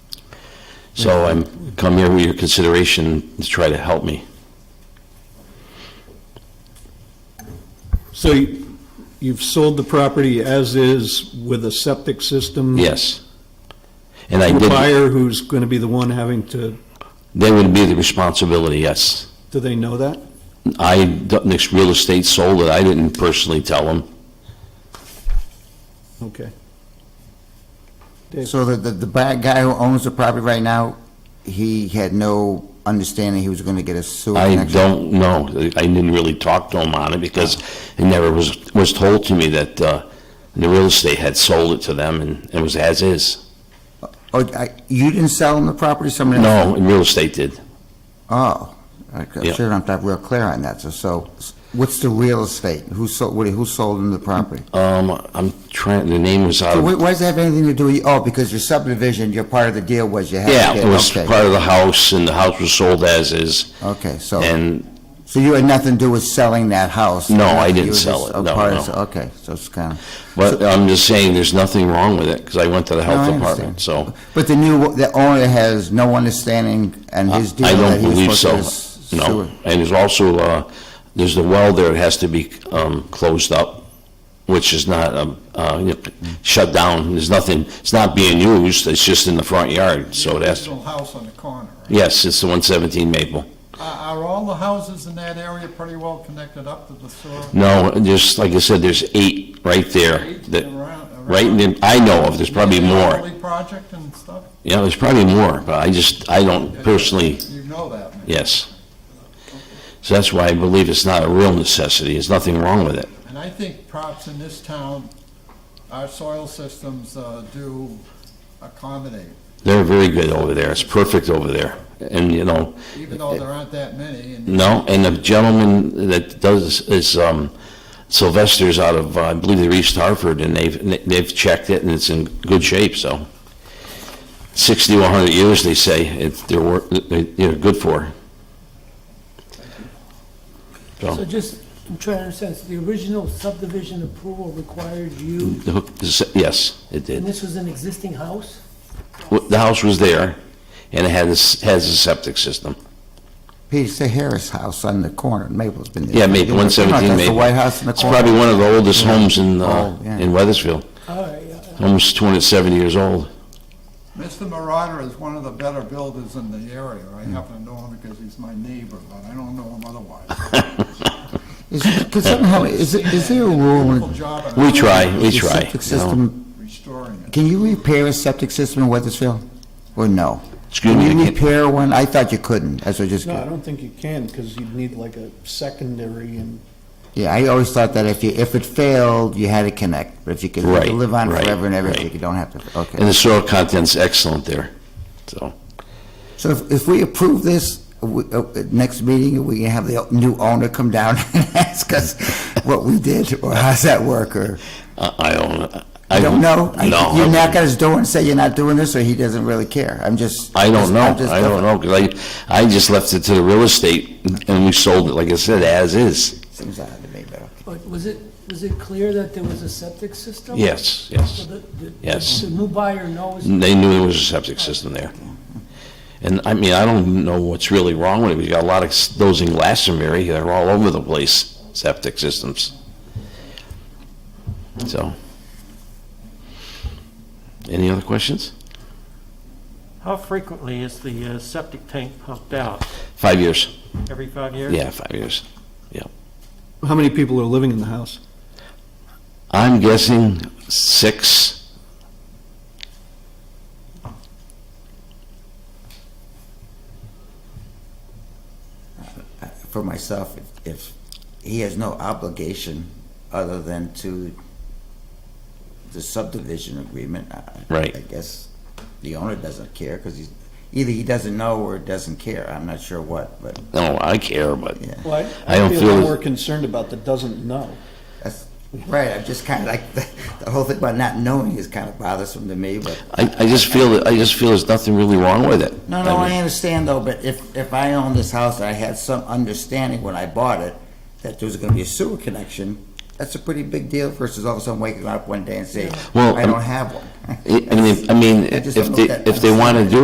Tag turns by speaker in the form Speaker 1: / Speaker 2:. Speaker 1: So I'm, come here with your consideration to try to help me.
Speaker 2: Mm-hmm.
Speaker 3: So you- you've sold the property as is with a septic system?
Speaker 1: Yes. And I
Speaker 3: To a
Speaker 1: did,
Speaker 3: buyer who's going to be the one having to,
Speaker 1: they would be the responsibility, yes.
Speaker 3: do they know that?
Speaker 1: I, Dutnick's Real Estate sold it, I didn't personally tell them.
Speaker 3: Okay. Dave,
Speaker 2: So the, the, the ba- guy who owns the property right now, he had no understanding he was gonna get a sewer
Speaker 1: I
Speaker 2: connection?
Speaker 1: don't know, I didn't really talk to him on it because it never was, was told to me that, uh, the real estate had sold it to them and it was as is.
Speaker 2: Oh, I, you didn't sell him the property, somebody else?
Speaker 1: No, and real estate did.
Speaker 2: Oh, I- I'm
Speaker 1: Yeah.
Speaker 2: sure I'm not real clear on that, so, so, what's the real estate? Who sold, what- who sold him the property?
Speaker 1: Um, I'm trying, the name was out
Speaker 2: So
Speaker 1: of.
Speaker 2: wh- why does that have anything to do with, you? oh, because your subdivision, your part of the deal was you had to
Speaker 1: Yeah,
Speaker 2: get,
Speaker 1: it was
Speaker 2: okay.
Speaker 1: part of the house, and the house was sold as is,
Speaker 2: Okay, so,
Speaker 1: and,
Speaker 2: so you had nothing to do with selling that house?
Speaker 1: No, I
Speaker 2: You
Speaker 1: didn't
Speaker 2: were
Speaker 1: sell
Speaker 2: just
Speaker 1: it.
Speaker 2: a
Speaker 1: No,
Speaker 2: part of-
Speaker 1: no.
Speaker 2: Okay, so it's kind of,
Speaker 1: but I'm just saying, there's nothing wrong with it, because I went to the
Speaker 2: No, I
Speaker 1: health
Speaker 2: understand.
Speaker 1: department, so,
Speaker 2: but the new, the owner has no understanding and his deal
Speaker 1: I
Speaker 2: that
Speaker 1: don't
Speaker 2: he
Speaker 1: believe
Speaker 2: was
Speaker 1: so,
Speaker 2: supposed to...
Speaker 1: no.
Speaker 2: sewer.
Speaker 1: And there's also, uh, there's the well there, it has to be, um, closed up, which is not, um, uh, you know, shut down, there's nothing, it's not being used, it's just in the front yard, so
Speaker 4: The
Speaker 1: that's,
Speaker 4: original house on the corner. right?
Speaker 1: yes, it's the one seventeen Maple.
Speaker 4: Are are all the houses in that area pretty well connected up to the sewer?
Speaker 1: No, just, like I said, there's eight right there,
Speaker 4: Eight
Speaker 1: that,
Speaker 4: around- around-
Speaker 1: right, in the- I know of, there's probably
Speaker 4: The
Speaker 1: more.
Speaker 4: Everly Project and stuff?
Speaker 1: Yeah, there's probably more, but I just, I don't personally,
Speaker 4: You know that. man.
Speaker 1: yes. So that's why I believe it's not a real necessity, there's nothing wrong with it.
Speaker 4: And I think perhaps in this town, our soil systems uh, do accommodate,
Speaker 1: They're very good over there, it's perfect over there. And, you know,
Speaker 4: even though there aren't that many. and-
Speaker 1: no, and the gentleman that does, is um, Sylvester's out of, uh, I believe they're East Hartford, and they've, they've checked it, and it's in good shape, so. 60 to 100 years, they say, it's, they're, wor- they- they're good for.
Speaker 5: So just, I'm trying to understand, so the original subdivision approval required you,
Speaker 1: The hook- Yes, it did.
Speaker 5: and this was an existing house?
Speaker 1: Well, The house was there, and it had, a s- has a septic system.
Speaker 2: Peter, say Harris House on the corner, Maple's been there.
Speaker 1: Yeah, maybe
Speaker 2: You know, that's
Speaker 1: 117
Speaker 2: The
Speaker 1: Maple.
Speaker 2: White House in the
Speaker 1: It's
Speaker 2: corner.
Speaker 1: probably one of the oldest homes in, uh,
Speaker 2: Oh, yeah.
Speaker 1: in Weathersfield,
Speaker 5: All right, yeah.
Speaker 1: almost 270 years old.
Speaker 4: Mr. Marauder is one of the better builders in the area. I
Speaker 1: Mm.
Speaker 4: happen to know him because he's my neighbor, but I don't know him otherwise.
Speaker 2: Is, because somehow, is, it- is there a rule
Speaker 4: Wonderful
Speaker 2: in
Speaker 4: job at
Speaker 1: We try, we
Speaker 2: the
Speaker 1: try.
Speaker 2: septic
Speaker 1: you know.
Speaker 2: system?
Speaker 4: restoring it.
Speaker 2: Can you repair a septic system in Weathersfield? Or no?
Speaker 1: Excuse
Speaker 2: Can
Speaker 1: me,
Speaker 2: you
Speaker 1: I can't-
Speaker 2: repair one? I thought you couldn't, that's what I just,
Speaker 3: no, I don't think you can, because you'd need like a secondary and
Speaker 2: yeah, I always thought that if you, if it failed, you had to connect, but if you could you could
Speaker 1: Right,
Speaker 2: live on
Speaker 1: right,
Speaker 2: forever and ever,
Speaker 1: right.
Speaker 2: you don't have to, okay.
Speaker 1: And the soil content's excellent there, so.
Speaker 2: So if, if we approve this, we- uh, at next meeting, we can have the new owner come down and ask us what we did, or how's that work, or,
Speaker 1: I I don't. I
Speaker 2: I don't
Speaker 1: No.
Speaker 2: know?
Speaker 1: I
Speaker 2: You knock
Speaker 1: wouldn't.
Speaker 2: at his door and say you're not doing this, or he doesn't really care? I'm just.
Speaker 1: I don't know,
Speaker 2: I'm just-
Speaker 1: I don't know, because I, I just left it to the real estate, and we sold it, like I said, as is.
Speaker 2: Seems odd to me, but, okay.
Speaker 5: But was it, was it clear that there was a septic system?
Speaker 1: Yes,
Speaker 5: So
Speaker 1: yes.
Speaker 5: the- the-
Speaker 1: Yes. Mm.
Speaker 5: The new buyer knows,
Speaker 1: They knew there was a septic system there. And, I mean, I don't know what's really wrong with it, we got a lot of s- those in Glastonbury, they're all over the place, septic systems. So. Any other questions?
Speaker 6: How frequently is the uh, septic tank pumped out?
Speaker 1: Five years,
Speaker 6: Every five years?
Speaker 1: yeah, five years.
Speaker 3: how many people are living in the house?
Speaker 1: I'm guessing six,
Speaker 2: for myself, if- if he has no obligation other than to the subdivision agreement, I-
Speaker 1: Right.
Speaker 2: I guess the owner doesn't care, because he's, either he doesn't know or doesn't care, I'm not sure what, but
Speaker 1: no, I care, but
Speaker 2: Yeah.
Speaker 3: Well, I-
Speaker 1: I
Speaker 3: I'd
Speaker 1: don't
Speaker 3: be a
Speaker 1: feel
Speaker 3: lot
Speaker 1: as-
Speaker 3: more concerned about the doesn't know.
Speaker 2: that's, right, I'm just kind of like, the the whole thing about not knowing is kind of bothersome to me, but,
Speaker 1: I, I just feel, that I just feel there's nothing really wrong with it.
Speaker 2: no, no,
Speaker 1: mean-
Speaker 2: I understand though, but if, if I owned this house and I had some understanding when I bought it that there was going to be a sewer connection, that's a pretty big deal versus all of a sudden waking up one day and saying,
Speaker 1: Well,
Speaker 2: I
Speaker 1: um,
Speaker 2: don't have one.
Speaker 1: I I mean, I mean,
Speaker 2: I just
Speaker 1: if
Speaker 2: don't
Speaker 1: they,
Speaker 2: look at-
Speaker 1: if they want to do